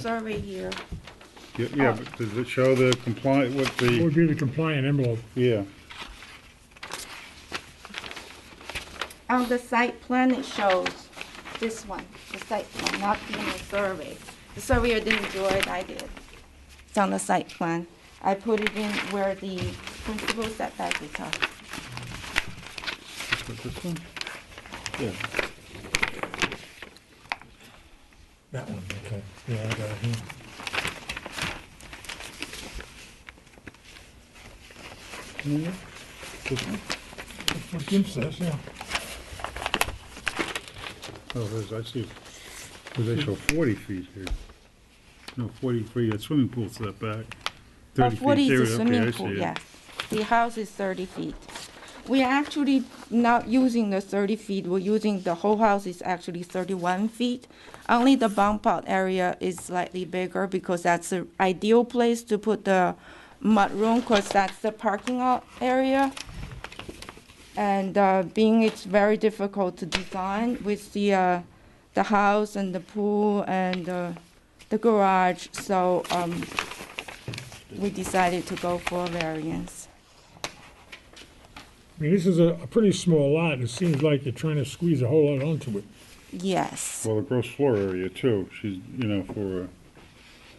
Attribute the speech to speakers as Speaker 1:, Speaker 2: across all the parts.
Speaker 1: survey here.
Speaker 2: Yeah, Yeah, but does it show the compliant with the,
Speaker 3: would be the compliant envelope.
Speaker 2: yeah,
Speaker 1: On the site plan, it shows this one, the site plan, not in the survey. The surveyor didn't do it, I did. It's on the site plan. I put it in where the principal setback is at.
Speaker 2: Just like this one? Yeah,
Speaker 3: That one, okay. Yeah, I got it here.
Speaker 2: this one?
Speaker 3: That's what Jim says, yeah.
Speaker 2: Oh, there's, I see, oh, they show forty feet here. No, forty-three, that swimming pool setback.
Speaker 1: Uh,
Speaker 2: 30 feet
Speaker 1: Forty
Speaker 2: there,
Speaker 1: is
Speaker 2: okay,
Speaker 1: a
Speaker 2: I
Speaker 1: swimming
Speaker 2: see
Speaker 1: pool,
Speaker 2: it.
Speaker 1: yeah. The house is thirty feet. We are actually not using the thirty feet, we're using, the whole house is actually thirty-one feet. Only the bump out area is slightly bigger because that's the ideal place to put the mudroom, because that's the parking lot area. And uh, being it's very difficult to design with the, uh, the house and the pool and uh, the garage, so um, we decided to go for a variance.
Speaker 3: I mean, this is a, a pretty small lot, and it seems like you're trying to squeeze a whole lot onto it.
Speaker 1: Yes,
Speaker 2: Well, the gross floor area too, she's, you know, for,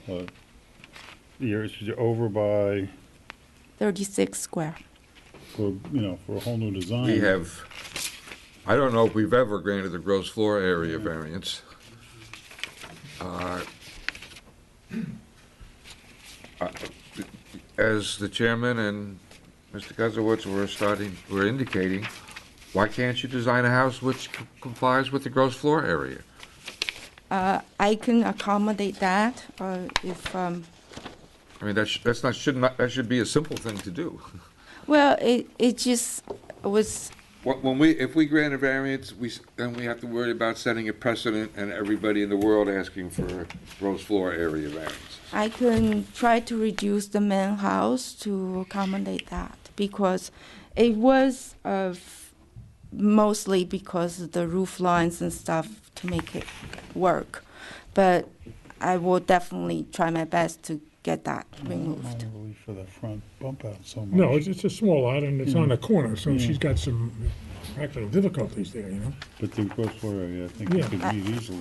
Speaker 2: uh, uh, you're, she's over by,
Speaker 1: 36 square.
Speaker 2: for, you know, for a whole new design.
Speaker 4: We have, I don't know if we've ever granted the gross floor area variance. Uh, uh, As the chairman and Mr. Guzowitz were starting, were indicating, why can't you design a house which c- complies with the gross floor area?
Speaker 1: Uh, I can accommodate that uh, if, um,
Speaker 4: I mean, that's, that's not, should not, that should be a simple thing to do.
Speaker 1: well, it, it just was,
Speaker 4: When when we, if we grant a variance, we, s- then we have to worry about setting a precedent and everybody in the world asking for gross floor area variance.
Speaker 1: I can try to reduce the main house to accommodate that because it was uh, mostly because of the roof lines and stuff to make it work. But I will definitely try my best to get that removed.
Speaker 2: Not really for that front bump out so much.
Speaker 3: No, it's, it's a small lot, and it's on a corner, so
Speaker 2: Yeah.
Speaker 3: she's got some practical difficulties there, you know?
Speaker 2: But the gross floor area, I think you
Speaker 3: Yeah.
Speaker 2: could
Speaker 1: I-
Speaker 2: meet easily.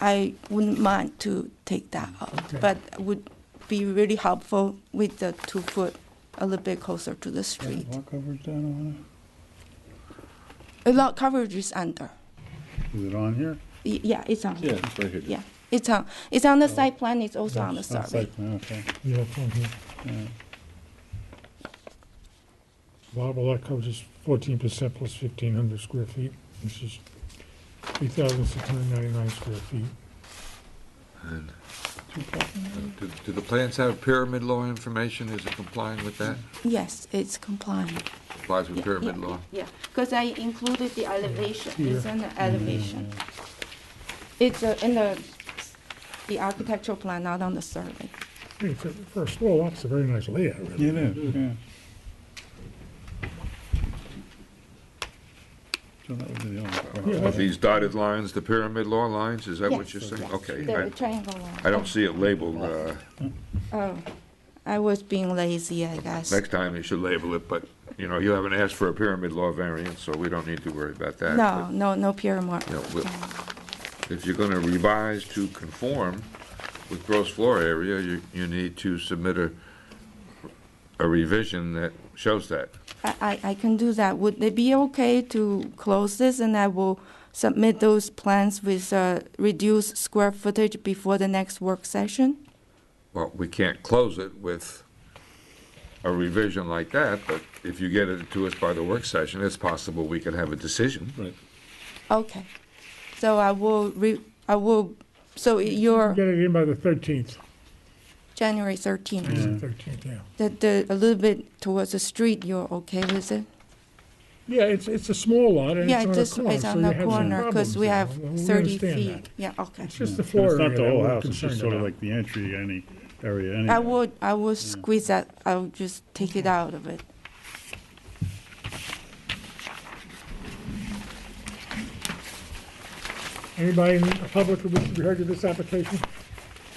Speaker 1: I wouldn't mind to take that out,
Speaker 3: Okay.
Speaker 1: but would be really helpful with the two foot a little bit closer to the street.
Speaker 2: Lot coverage down
Speaker 1: A lot coverage is under.
Speaker 2: on it? Is it on here?
Speaker 1: Y- Yeah, it's on.
Speaker 2: it's right here.
Speaker 1: Yeah, it's on, it's on the site plan, it's also on the survey.
Speaker 2: Okay.
Speaker 3: Yeah, it's on here.
Speaker 2: Yeah.
Speaker 3: Bob, well, that covers fourteen percent plus fifteen hundred square feet, which is three thousand six hundred ninety-nine square feet.
Speaker 4: Do do the plans have pyramid law information? Is it complying with that?
Speaker 1: Yes, it's compliant.
Speaker 4: Complies with
Speaker 1: Yeah,
Speaker 4: pyramid
Speaker 1: yeah,
Speaker 4: law?
Speaker 1: Yeah, because I included the elevation, it's
Speaker 3: Here.
Speaker 1: an elevation. It's uh, in the, the architectural plan, not on the survey.
Speaker 3: Hey, for, for a small lot, it's a very nice layout, really.
Speaker 2: It is, yeah. So that would be the only
Speaker 3: Yeah,
Speaker 2: part.
Speaker 4: Are
Speaker 3: that's-
Speaker 4: these dotted lines, the pyramid law lines, is that what you're
Speaker 1: Yes,
Speaker 4: saying?
Speaker 1: yes,
Speaker 4: Okay,
Speaker 1: The
Speaker 4: I-
Speaker 1: triangle
Speaker 4: I
Speaker 1: line.
Speaker 4: don't see it labeled. uh,
Speaker 1: Oh, I was being lazy, I guess.
Speaker 4: Next time you should label it, but, you know, you haven't asked for a pyramid law variance, so we don't need to worry about that.
Speaker 1: No, no, no pyramid.
Speaker 4: Yeah, we'll- But If you're gonna revise to conform with gross floor area, you, you need to submit a, a revision that shows that.
Speaker 1: I, I, I can do that. Would it be okay to close this and I will submit those plans with uh, reduced square footage before the next work session?
Speaker 4: Well, we can't close it with a revision like that, but if you get it to us by the work session, it's possible we could have a decision.
Speaker 2: Right.
Speaker 1: Okay. So I will re, I will, so your
Speaker 3: Get it in by the thirteenth,
Speaker 1: January 13th,
Speaker 3: thirteenth, yeah.
Speaker 1: the, the, a little bit towards the street, you're okay with it?
Speaker 3: Yeah, it's, it's a small lot, and
Speaker 1: Yeah, it
Speaker 3: it's
Speaker 1: just,
Speaker 3: on a corner,
Speaker 1: it's
Speaker 3: so
Speaker 1: on
Speaker 3: you
Speaker 1: the
Speaker 3: have some
Speaker 1: corner because
Speaker 3: problems
Speaker 1: we
Speaker 3: there.
Speaker 1: have
Speaker 3: Well, we
Speaker 1: 30
Speaker 3: understand
Speaker 1: feet.
Speaker 3: that.
Speaker 1: Yeah, okay.
Speaker 3: It's just the
Speaker 2: And
Speaker 3: floor
Speaker 2: It's
Speaker 3: area
Speaker 2: not the
Speaker 3: that
Speaker 2: whole
Speaker 3: we're
Speaker 2: house, it's just
Speaker 3: concerned
Speaker 2: sort of
Speaker 3: about.
Speaker 2: like the entry, any area, any.
Speaker 1: I would, I will squeeze that, I'll just take it out of it.
Speaker 3: Anybody in the public who wishes to be heard to this application?